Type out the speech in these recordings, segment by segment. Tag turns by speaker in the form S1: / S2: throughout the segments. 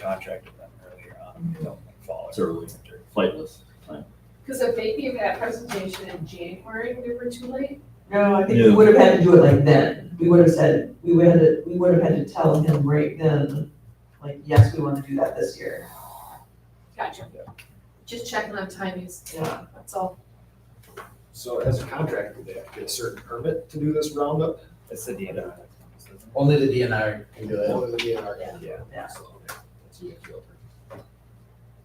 S1: contract with them earlier on, you know, like fall
S2: It's
S1: or
S2: early.
S1: winter.
S2: flightless time.
S3: Because if they gave that presentation in January, we were too late.
S4: No, I think we
S2: Yeah.
S4: would have had to do it like then. We would have said, we would have, we would have had to tell him right then, like, yes, we want to do that this year.
S3: Gotcha. Just checking on timings,
S4: Yeah.
S3: that's all.
S5: So as a contractor, they have to get a certain permit to do this roundup,
S1: It's the DNR.
S6: Only the DNR can do it.
S5: only the DNR can.
S1: Yeah.
S4: Yeah.
S5: So, okay, that's a good deal.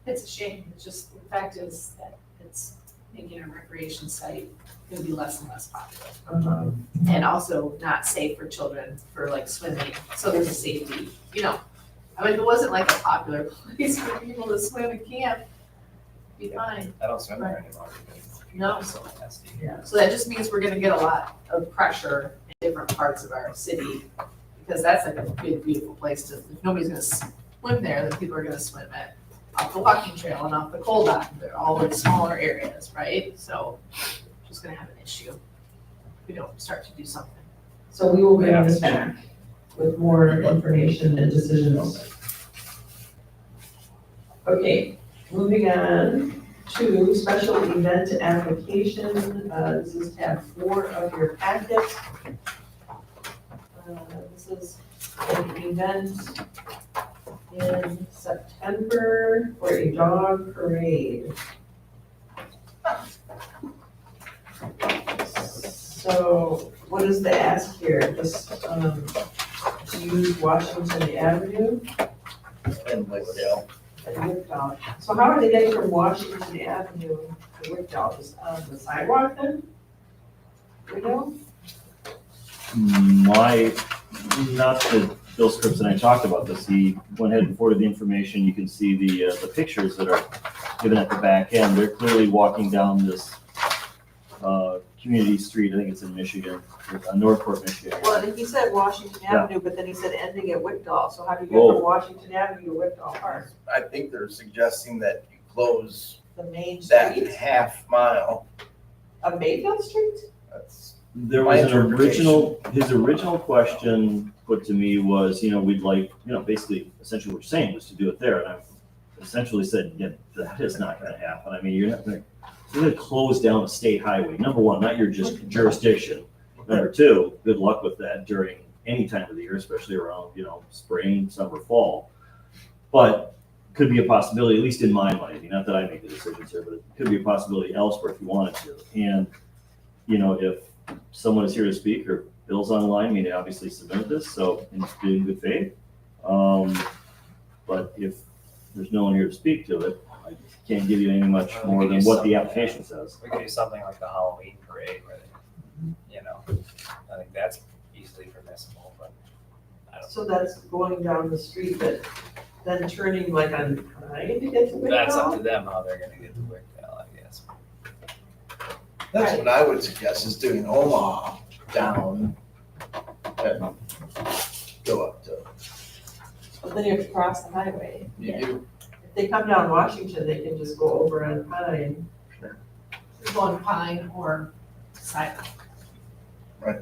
S3: It's a shame, it's just, the fact is that it's making a recreation site gonna be less and less popular.
S4: Uh-huh.
S3: And also not safe for children for like swimming, so there's a safety, you know. I mean, if it wasn't like a popular place for people to swim and camp, be fine.
S1: I don't swim there anymore. because
S3: No.
S1: it's so nasty.
S3: So that just means we're gonna get a lot of pressure in different parts of our city, because that's like a big, beautiful place to, if nobody's gonna swim there, then people are gonna swim at off the walking trail and off the cold dock, they're all in smaller areas, right? So, just gonna have an issue if we don't start to do something.
S4: So we will bring
S1: Yeah.
S4: this back with more information and decisions. Okay, moving on to special event application, uh, this is tab four of your packet. Uh, This is an event in September for a dog parade. So what is the ask here? Just, um, to use Washington Avenue
S1: And Lakeville.
S4: and Wickdall. So how are they getting from Washington Avenue to Wickdall? Just on um, the sidewalk then? You know?
S2: My, not that Bill Scripps and I talked about this, he went ahead and forwarded the information, you can see the, uh, the pictures that are given at the back end, they're clearly walking down this, uh, community street, I think it's in Michigan, uh, Northport, Michigan.
S4: Well, and he said Washington
S2: Yeah.
S4: Avenue, but then he said ending at Wickdall. So how do you get
S2: Whoa.
S4: from Washington Avenue to Wickdall Park?
S7: I think they're suggesting that you close
S4: The main
S7: that
S4: street
S7: half mile.
S4: of Mayfield Street?
S7: That's,
S2: There
S7: My
S2: was an
S7: interpretation.
S2: original, his original question put to me was, you know, we'd like, you know, basically essentially what you're saying was to do it there. And I essentially said, yeah, that is not gonna happen. I mean, you're not gonna, you're gonna close down a state highway. Number one, not your just jurisdiction. Number two, good luck with that during any time of the year, especially around, you know, spring, summer, fall. But could be a possibility, at least in my mind, I mean, not that I make the decisions here, but it could be a possibility elsewhere if you wanted to. And, you know, if someone is here to speak or Bill's online, we need to obviously submit this, so in in good faith. Um, But if there's no one here to speak to it, I can't give you any much
S1: Well, we
S2: more
S1: could
S2: than
S1: do
S2: what the
S1: something.
S2: application says.
S1: We could do something like the Halloween parade where they, you know, I think that's easily permissible, but I don't.
S4: So that's going down the street, but then turning like on Pine to get to Wickdall?
S1: That's up to them how they're gonna get the work out, I guess.
S7: that's what I would suggest is doing Omaha down. and Go up to,
S4: But then you have to cross the highway.
S7: you do,
S4: If they come down Washington, they can just go over on Pine
S3: One pine or sidewalk.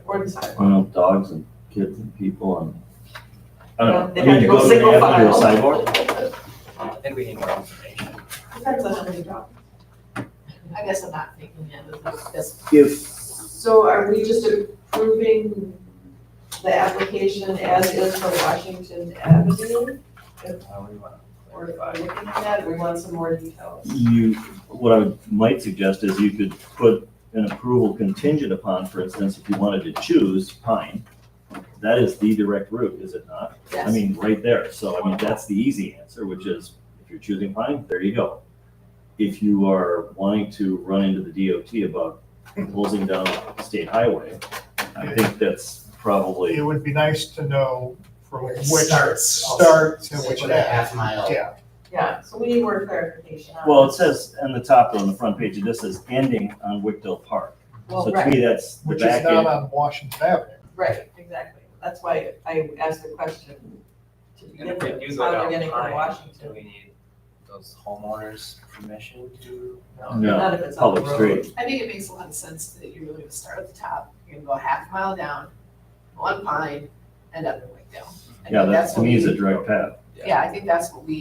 S4: or the sidewalk.
S2: I don't know, dogs and kids and people and, I don't know.
S4: They
S2: I mean,
S4: have to go
S2: to the
S4: single
S2: avenue or
S4: file.
S2: sidewalk,
S1: And we need more information.
S4: Depends on how many dogs.
S3: I guess I'm not thinking of it, that's,
S2: If,
S4: So are we just approving the application as is for Washington Avenue?
S1: How we wanna
S4: Or
S1: clarify.
S4: looking at that, we want some more details?
S2: you, what I would- might suggest is you could put an approval contingent upon, for instance, if you wanted to choose Pine. That is the direct route, is it not? I
S3: yes.
S2: mean, right there. So I mean, that's the easy answer, which is if you're choosing pine, there you go. If you are wanting to run into the DOT about closing down a state highway, I think that's
S8: It
S2: probably,
S8: would be nice to know from
S6: Where it
S8: which
S6: starts.
S8: starts and which
S6: Put a
S8: ends.
S6: half mile.
S8: Yeah,
S4: Yeah, so we need more clarification on.
S2: well, it says on the top on the front page, it just says ending on Wickdell Park.
S4: Well,
S2: So to me,
S4: right,
S2: that's the
S8: which
S2: back
S8: is not
S2: end.
S8: on Washington Avenue.
S4: right, exactly. That's why I asked the question to
S1: And
S4: begin
S1: if we do
S4: with,
S1: go
S4: how they're
S1: down
S4: getting from
S1: Pine, do
S4: Washington.
S1: we need those homeowners' permission to?
S2: No,
S4: Not if it's on the
S2: Public
S4: road.
S2: street.
S3: I think it makes a lot of sense that you're really gonna start at the top, you're gonna go a half mile down, one pine, and up in Wakefield. I
S2: Yeah, that's,
S3: think that's
S2: to
S3: what
S2: me is
S3: we-
S2: a direct path.
S3: Yeah, I think that's what we